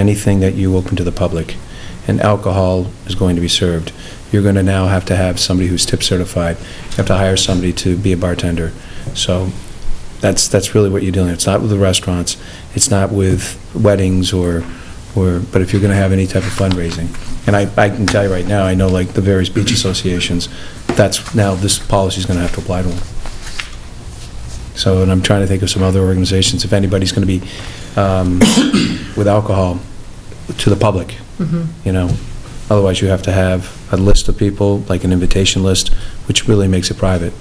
anything that you open to the public, and alcohol is going to be served, you're going to now have to have somebody who's tip certified, you have to hire somebody to be a bartender. So that's, that's really what you're dealing with. It's not with the restaurants, it's not with weddings or, or, but if you're going to have any type of fundraising. And I, I can tell you right now, I know like the various beach associations, that's, now this policy's going to have to apply to them. So, and I'm trying to think of some other organizations, if anybody's going to be um, with alcohol to the public, you know? Otherwise, you have to have a list of people, like an invitation list, which really makes it private.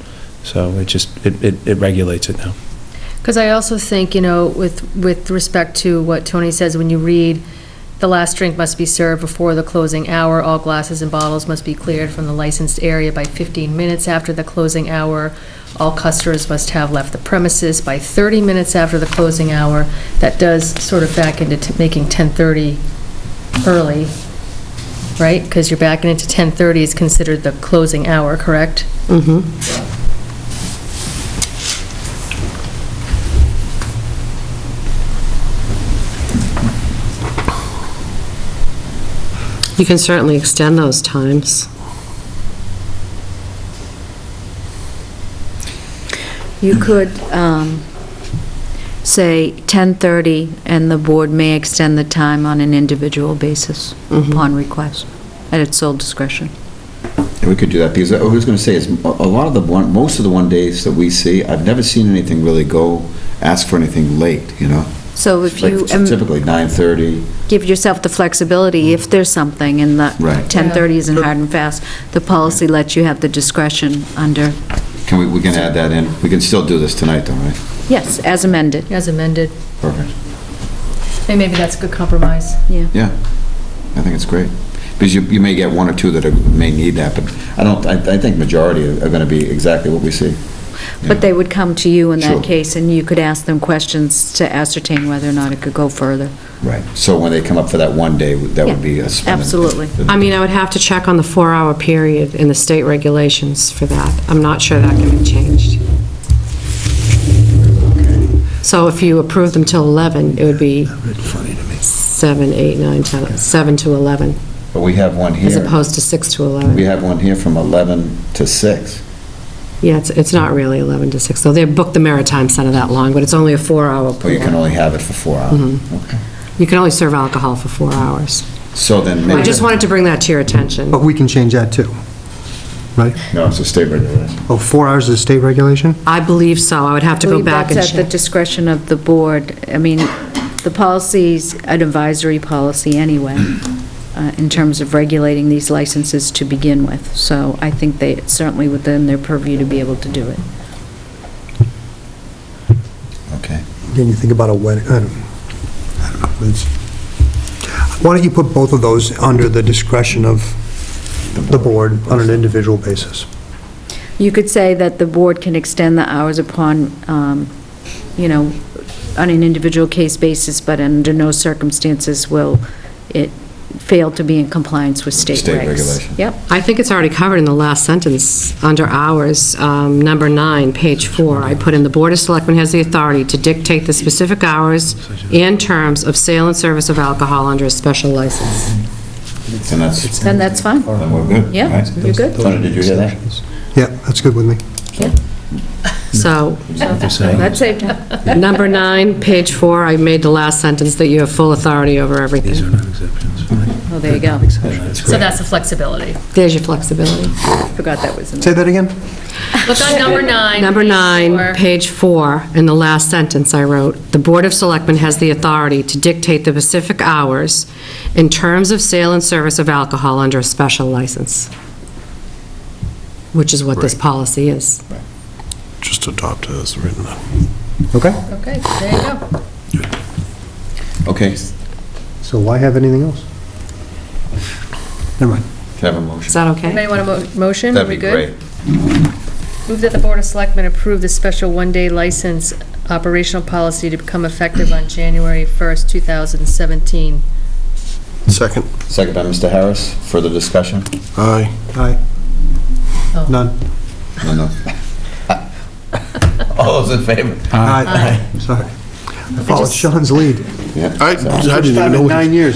So it just, it- it it regulates it now. Because I also think, you know, with, with respect to what Tony says, when you read, the last drink must be served before the closing hour, all glasses and bottles must be cleared from the licensed area by 15 minutes after the closing hour, all customers must have left the premises by 30 minutes after the closing hour. That does sort of back into t- making 10:30 early, right? Because you're backing into 10:30 is considered the closing hour, correct? You can certainly extend those times. You could um, say 10:30, and the board may extend the time on an individual basis upon request, at its sole discretion. Yeah, we could do that, because I was gonna say, is a a lot of the one, most of the one days that we see, I've never seen anything really go, ask for anything late, you know? So if Like you um, typically nine thirty, give yourself the flexibility, if there's something, and the Mm-hmm. Right. 10:30 isn't hard and fast, the policy lets you have the discretion under, can we, we can add that in, we can still do this tonight though, right? yes, as amended, As amended. Perfect, Maybe that's a good compromise. yeah. yeah, I think it's great, because you, you may get one or two that are- may need that, but I don't, I, I think majority are are gonna be exactly what we see. But they would come to you in Sure. that case, and you could ask them questions to ascertain whether or not it could go further. Right. So when they come up for that one day, that would be a. Absolutely. I mean, I would have to check on the four-hour period in the state regulations for that. I'm not sure that can be changed. So if you approve them till 11, it would be 7, 8, 9, 10, 7 to 11, But we have one as here, opposed to 6 to we 11. have one here from eleven to six. Yeah, it's, it's not really 11 to 6, though. They booked the Maritime Center that long, but it's only a four-hour. Or you can only have it for four hours. Mm-hmm. Okay. You can only serve alcohol for four hours. So then maybe. Oh. I just wanted to bring that to your attention. But we can change that too, right? No, it's a state regulation. Oh, four hours is state regulation? I believe so. I would have to go believe back and That's at the check. discretion of the board. I mean, the policy's an advisory policy anyway, uh, in terms of regulating these licenses to begin with. So I think they, it's certainly within their purview to be able to do it. Okay. Then you think about a wedding, I don't I don't know. it's- Why don't you put both of those under the discretion of the board on an individual basis? You could say that the board can extend the hours upon, um, you know, on an individual case basis, but under no circumstances will it fail to be in compliance with state regs. State regulation. Yep. I think it's already covered in the last sentence, under hours, um, number nine, page four. I put in, "The Board of Selectmen has the authority to dictate the specific hours and terms of sale and service of alcohol under a special license." Then that's, Then that's fine. then we're good. Yeah, right? you're good. Tony, did you hear that? Yeah, that's good with me. So, That's it. number nine, page four, I made the last sentence that you have full authority over everything. not exceptions. Oh, there you go. So that's the flexibility. There's your flexibility. Forgot that was in Say that again? Look on number nine. Number Or- nine, page four, in the last sentence I wrote, "The Board of Selectmen has the authority to dictate the specific hours in terms of sale and service of alcohol under a special license," which is what this policy is. just adopt it as written. Okay, Okay, there you go. Okay. so why have anything else? Never mind. Can I have a Is motion? that okay? Anybody want a mo- motion? That'd Are we be good? great. Move that the Board of Selectmen approve the special one-day license operational policy to become effective on January 1st, 2017. Second. Second by Mr. Harris. Further discussion? Aye. Aye. Oh. None. No, no. All those in favor? Aye. Sorry. I followed Sean's lead. Yeah. I I didn't even know. First time in we- nine years.